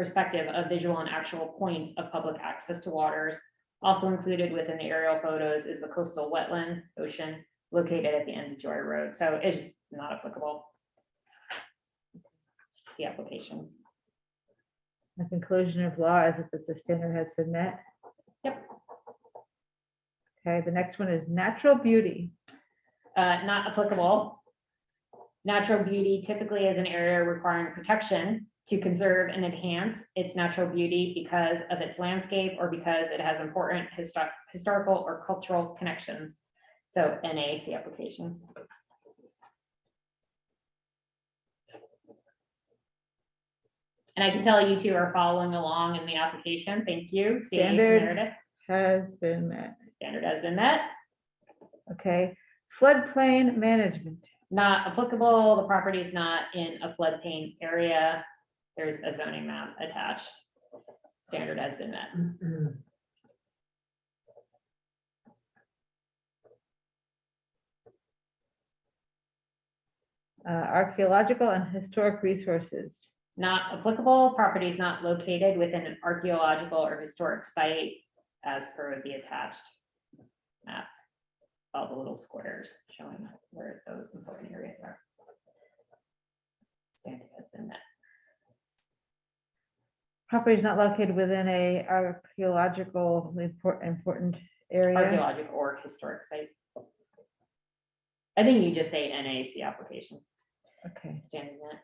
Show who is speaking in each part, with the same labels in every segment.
Speaker 1: perspective of visual and actual points of public access to waters. Also included within the aerial photos is the coastal wetland ocean located at the end of Joy Road, so it's just not applicable. See application.
Speaker 2: The conclusion of law is that the standard has been met.
Speaker 1: Yep.
Speaker 2: Okay, the next one is natural beauty.
Speaker 1: uh, not applicable. Natural beauty typically is an area requiring protection to conserve and enhance its natural beauty because of its landscape or because it has important histo- historical or cultural connections. So NAC application. And I can tell you two are following along in the application. Thank you. See,
Speaker 2: Standard.
Speaker 1: narrative,
Speaker 2: Has been met.
Speaker 1: Standard has been met.
Speaker 2: Okay, floodplain management.
Speaker 1: not applicable, the property is not in a floodplain area. There's a zoning map attached. Standard has been met.
Speaker 2: uh, archaeological and historic resources.
Speaker 1: Not applicable, property is not located within an archaeological or historic site as per the attached map. All the little squares showing where those important areas are. Standard has been met.
Speaker 2: Property is not located within a archaeological impor- important area.
Speaker 1: archaeological or historic site. I think you just say NAC application,
Speaker 2: Okay,
Speaker 1: standard met.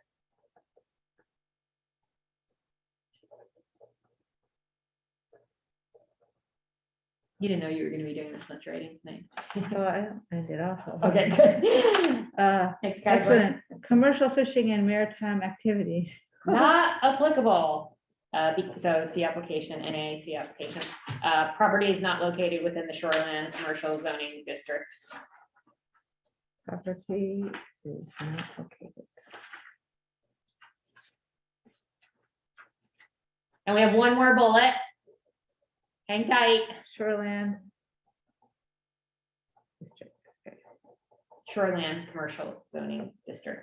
Speaker 1: You didn't know you were gonna be doing this much writing tonight.
Speaker 2: so I I did awful.
Speaker 1: Okay, good.
Speaker 2: Uh,
Speaker 1: Next category,
Speaker 2: Excellent. Commercial fishing and maritime activities.
Speaker 1: not applicable. Uh, be- so see application, NAC application. Uh, property is not located within the shoreline commercial zoning district.
Speaker 2: Property is not located.
Speaker 1: And we have one more bullet. Hang tight.
Speaker 2: Shoreland. district.
Speaker 1: Shoreland Commercial Zoning District,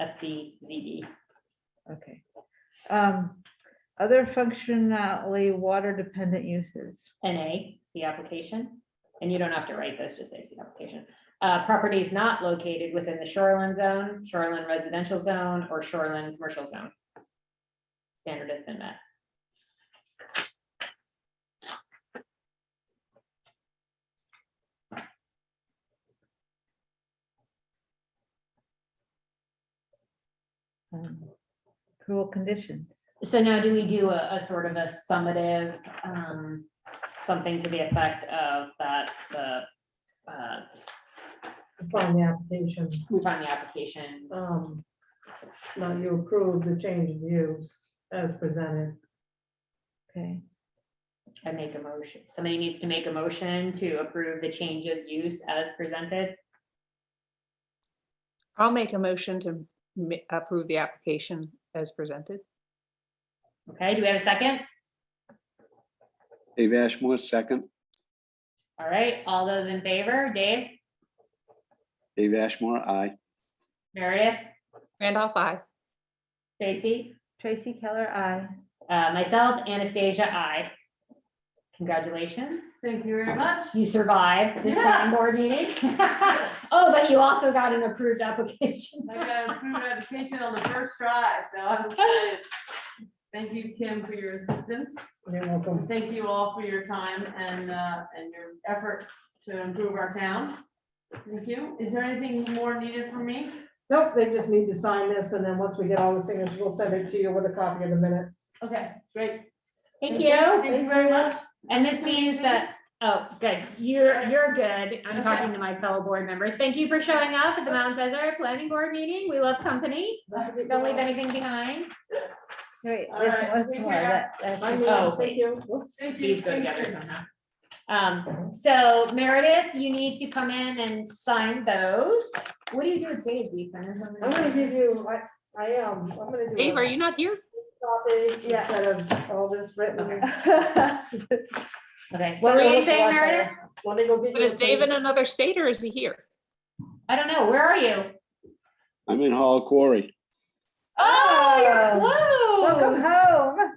Speaker 1: SCZD.
Speaker 2: Okay. Um, Other functionally water dependent uses.
Speaker 1: NA, see application. And you don't have to write this, just say see application. Uh, property is not located within the shoreline zone, shoreline residential zone, or shoreline commercial zone. Standard has been met.
Speaker 2: um, Cruel conditions.
Speaker 1: So now do we do a, a sort of a summative, um, something to the effect of that, the, uh,
Speaker 3: Sign the application,
Speaker 1: we find the application,
Speaker 3: um, now you approve the change of use as presented.
Speaker 2: Okay,
Speaker 1: I make a motion. Somebody needs to make a motion to approve the change of use as presented.
Speaker 4: I'll make a motion to ma- approve the application as presented.
Speaker 1: Okay, do we have a second?
Speaker 5: Dave Ashmore, second.
Speaker 1: All right, all those in favor, Dave,
Speaker 5: Dave Ashmore, aye.
Speaker 1: Meredith,
Speaker 4: Randolph, I.
Speaker 1: Tracy,
Speaker 2: Tracy Keller, I.
Speaker 1: uh, myself, Anastasia, I. Congratulations,
Speaker 3: Thank you very much.
Speaker 1: you survived this planning board meeting. Oh, but you also got an approved application.
Speaker 3: I got approved application on the first try, so I'm excited.
Speaker 6: Thank you, Kim, for your assistance.
Speaker 3: You're welcome.
Speaker 6: Thank you all for your time and, uh, and your effort to improve our town. Thank you. Is there anything more needed from me?
Speaker 3: Nope, they just need to sign this, and then once we get all the signatures, we'll send it to you with a copy of the minutes.
Speaker 6: Okay, great.
Speaker 1: Thank you.
Speaker 6: Thank you very much.
Speaker 1: And this means that, oh, good, you're, you're good. I'm talking to my fellow board members. Thank you for showing up at the Mount Desert Planning Board meeting. We love company. Don't leave anything behind.
Speaker 2: Wait,
Speaker 6: All
Speaker 2: there's
Speaker 6: right,
Speaker 2: one- one
Speaker 6: take
Speaker 2: more.
Speaker 6: care.
Speaker 2: That- that's-
Speaker 1: Oh,
Speaker 3: Bye, Leanne. Thank you. Whoops.
Speaker 6: Thank you.
Speaker 1: These go
Speaker 6: Thank
Speaker 1: together
Speaker 6: you.
Speaker 1: somehow. Um, so Meredith, you need to come in and sign those. What do you do with Dave? Do you sign his
Speaker 3: I'm gonna
Speaker 1: own?
Speaker 3: give you, I, I am, I'm gonna do. a
Speaker 4: Dave, are you not here?
Speaker 3: Copy
Speaker 2: Yeah.
Speaker 3: instead of all this written.
Speaker 1: Okay, what were you saying, Meredith?
Speaker 3: Let me go get
Speaker 4: But
Speaker 3: you
Speaker 4: is
Speaker 3: a
Speaker 4: Dave
Speaker 3: paper.
Speaker 4: in another state or is he here?
Speaker 1: I don't know. Where are you?
Speaker 5: I'm in Hall Quarry.
Speaker 1: Oh,
Speaker 2: Oh.
Speaker 1: you're close.
Speaker 2: Welcome home.